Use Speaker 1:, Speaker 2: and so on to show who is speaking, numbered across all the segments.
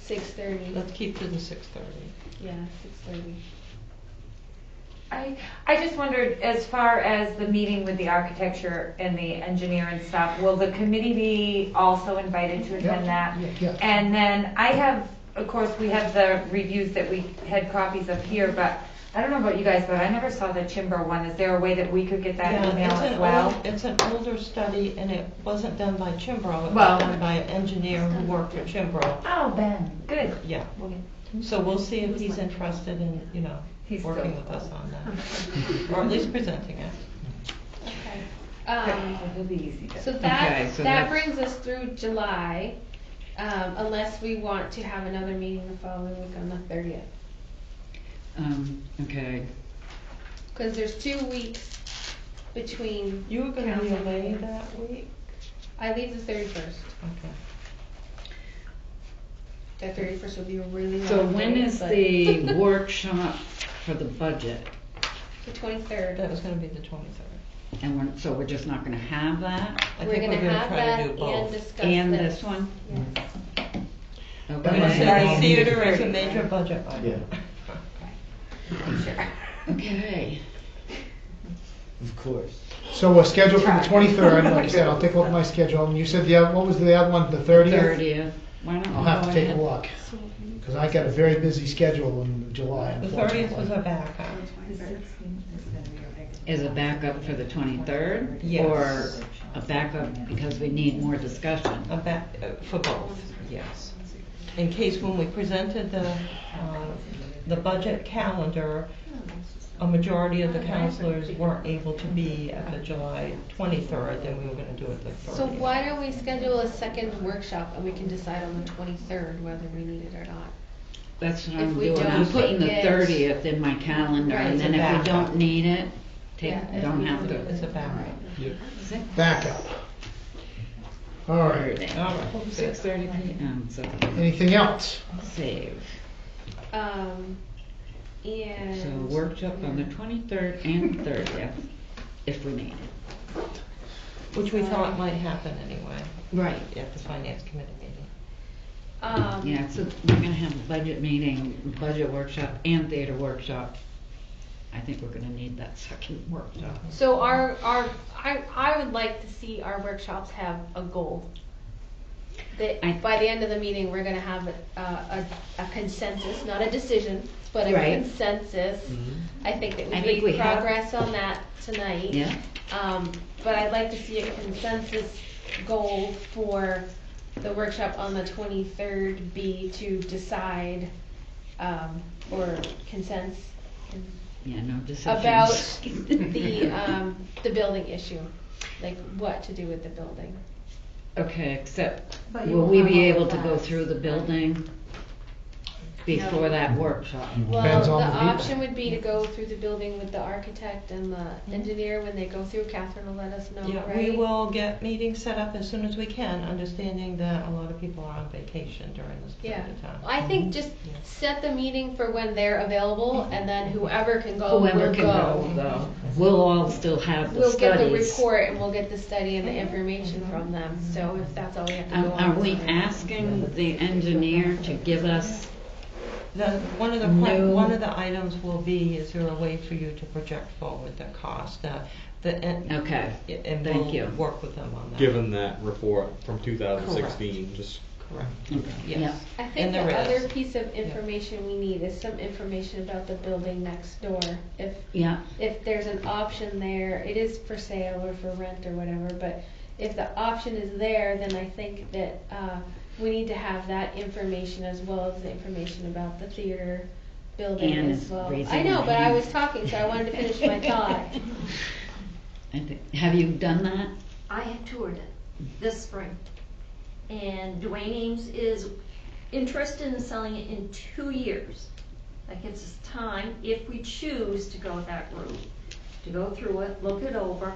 Speaker 1: Six thirty,
Speaker 2: Let's keep to the six thirty.
Speaker 1: yeah, six thirty.
Speaker 3: I, I just wondered, as far as the meeting with the architecture and the engineer and stuff, will the committee be also invited to attend that?
Speaker 4: Yeah.
Speaker 3: And then I have, of course, we have the reviews that we had copies of here, but I don't know about you guys, but I never saw the Chimber one. Is there a way that we could get that email as well?
Speaker 2: It's an older study and it wasn't done by Chimbro, it
Speaker 3: Well-
Speaker 2: was done by an engineer who worked for Chimbro.
Speaker 3: Oh, Ben. Good.
Speaker 2: Yeah, so we'll see if he's interested in, you know,
Speaker 3: He's
Speaker 2: working
Speaker 3: still-
Speaker 2: with us on that. Or at least presenting it.
Speaker 1: Okay.
Speaker 3: Oh,
Speaker 1: Um,
Speaker 3: He'll be easy
Speaker 1: so
Speaker 3: to.
Speaker 5: Okay,
Speaker 1: that,
Speaker 5: so
Speaker 1: that
Speaker 5: that's-
Speaker 1: brings us through July, um, unless we want to have another meeting the following week on the thirtieth.
Speaker 5: Um, okay,
Speaker 1: Cause there's two weeks between,
Speaker 2: You were gonna be
Speaker 1: Council.
Speaker 2: away that week?
Speaker 1: I leave the thirty-first.
Speaker 2: Okay.
Speaker 1: The thirty-first would be a really long
Speaker 5: so when
Speaker 1: day,
Speaker 5: is
Speaker 1: but-
Speaker 5: the workshop for the budget?
Speaker 1: The twenty-third.
Speaker 2: That was gonna be the twenty-third.
Speaker 5: And we're, so we're just not gonna have that
Speaker 1: We're gonna have that and discuss
Speaker 5: and
Speaker 1: this.
Speaker 5: this one?
Speaker 1: Yes.
Speaker 2: I'm gonna
Speaker 5: Okay,
Speaker 2: say
Speaker 3: Right.
Speaker 2: the theater is a
Speaker 3: 30,
Speaker 2: major
Speaker 3: right?
Speaker 2: budget item.
Speaker 5: okay,
Speaker 6: Of course.
Speaker 4: So we're scheduled for the 23rd, like I said, I'll take a look at my schedule, and you said the other, what was the other one, the 30th?
Speaker 5: thirtieth, why don't we go
Speaker 4: I'll have to take a
Speaker 5: ahead?
Speaker 4: look, because I got a very busy schedule in July,
Speaker 2: The thirtieth was
Speaker 4: unfortunately.
Speaker 2: a backup.
Speaker 5: As a backup for the twenty-third?
Speaker 2: Yes.
Speaker 5: Or a backup because we need more discussion?
Speaker 2: A ba- uh, for both, yes. In case when we presented the, um, the budget calendar, a majority of the counselors weren't able to be at the July twenty-third, then we were gonna do it the thirtieth.
Speaker 1: So why don't we schedule a second workshop and we can decide on the twenty-third whether we need it or not?
Speaker 5: That's what
Speaker 1: If
Speaker 5: I'm
Speaker 1: we
Speaker 5: doing,
Speaker 1: don't
Speaker 5: I'm putting the
Speaker 1: get-
Speaker 5: thirtieth in my calendar,
Speaker 1: Right,
Speaker 5: and
Speaker 2: it's a
Speaker 5: then if we
Speaker 2: backup.
Speaker 5: don't need it, take,
Speaker 1: Yeah, if
Speaker 5: don't
Speaker 1: we
Speaker 5: have
Speaker 1: don't-
Speaker 2: It's
Speaker 5: to.
Speaker 2: a backup.
Speaker 4: Backup. All right,
Speaker 2: All right.
Speaker 5: Six thirty PM, so
Speaker 4: anything else?
Speaker 5: save.
Speaker 1: Um, and.
Speaker 5: So workshop on the twenty-third and thirtieth, if we need it.
Speaker 2: Which we thought might happen anyway,
Speaker 5: Right.
Speaker 2: at the finance committee meeting.
Speaker 1: Um,
Speaker 5: Yeah, so we're gonna have a budget meeting, budget workshop and theater workshop. I think we're gonna need that second workshop.
Speaker 1: So our, our, I, I would like to see our workshops have a goal. That
Speaker 5: I-
Speaker 1: by the end of the meeting, we're gonna have a, a, a consensus, not a decision, but a
Speaker 5: Right. Mm-hmm.
Speaker 1: consensus. I think that
Speaker 5: I
Speaker 1: we
Speaker 5: think we
Speaker 1: made
Speaker 5: have.
Speaker 1: progress on that tonight.
Speaker 5: Yeah?
Speaker 1: Um, but I'd like to see a consensus goal for the workshop on the twenty-third be to decide, um, or consensus
Speaker 5: Yeah, no decisions.
Speaker 1: about the, um, the building issue, like what to do with the building.
Speaker 5: Okay, except,
Speaker 7: But you
Speaker 5: will we
Speaker 7: won't
Speaker 5: be
Speaker 7: have all
Speaker 5: able
Speaker 7: of
Speaker 5: to go
Speaker 7: that.
Speaker 5: through the building before that workshop?
Speaker 1: Well,
Speaker 4: Depends
Speaker 1: the
Speaker 4: on the people.
Speaker 1: option would be to go through the building with the architect and the engineer, when they go through, Catherine will let us know, right?
Speaker 2: Mm-hmm. Yeah, we will get meetings set up as soon as we can, understanding that a lot of people are on vacation during this
Speaker 1: Yeah,
Speaker 2: period of time.
Speaker 1: I
Speaker 5: Mm-hmm.
Speaker 1: think just set the meeting for when they're available, and then whoever can go will go.
Speaker 5: Whoever can go, though, we'll all still have the
Speaker 1: We'll get the
Speaker 5: studies. Mm-hmm.
Speaker 1: report and we'll get the study and the information from them, so if that's all we have to
Speaker 5: Um,
Speaker 1: go on.
Speaker 5: Are we
Speaker 1: is-
Speaker 5: asking the engineer to give us
Speaker 2: The, one of the, pla-
Speaker 5: No.
Speaker 2: one of the items will be, is there a way for you to project forward the cost? Uh, The, and-
Speaker 5: Okay,
Speaker 2: and
Speaker 5: thank you.
Speaker 2: we'll work with them on that.
Speaker 8: given that report from 2016, just
Speaker 2: Correct,
Speaker 5: Yeah.
Speaker 2: yes.
Speaker 1: I
Speaker 2: And
Speaker 1: think the
Speaker 2: there is.
Speaker 1: other piece of information we need is some information about the building next door. If,
Speaker 5: Yeah,
Speaker 1: if there's an option there, it is for sale or for rent or whatever, but if the option is there, then I think that, uh, we need to have that information as well as the information about the theater building
Speaker 5: Anne
Speaker 1: as
Speaker 5: is
Speaker 1: well.
Speaker 5: raising
Speaker 1: I know,
Speaker 5: her
Speaker 1: but I
Speaker 5: hand.
Speaker 1: was talking, so I wanted to finish my thought.
Speaker 5: I thi- have you done that?
Speaker 7: I have toured it this spring. And Dwayne Ames is interested in selling it in two years. That gives us time, if we choose to go that route, to go through it, look it over.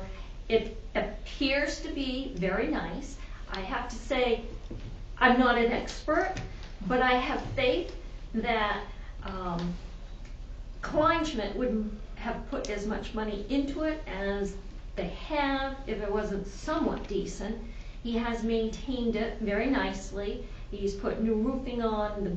Speaker 7: It appears to be very nice. I have to say, I'm not an expert, but I have faith that um, Kleinschmidt wouldn't have put as much money into it as they have, if it wasn't somewhat decent. He has maintained it very nicely. He's put new roofing on, the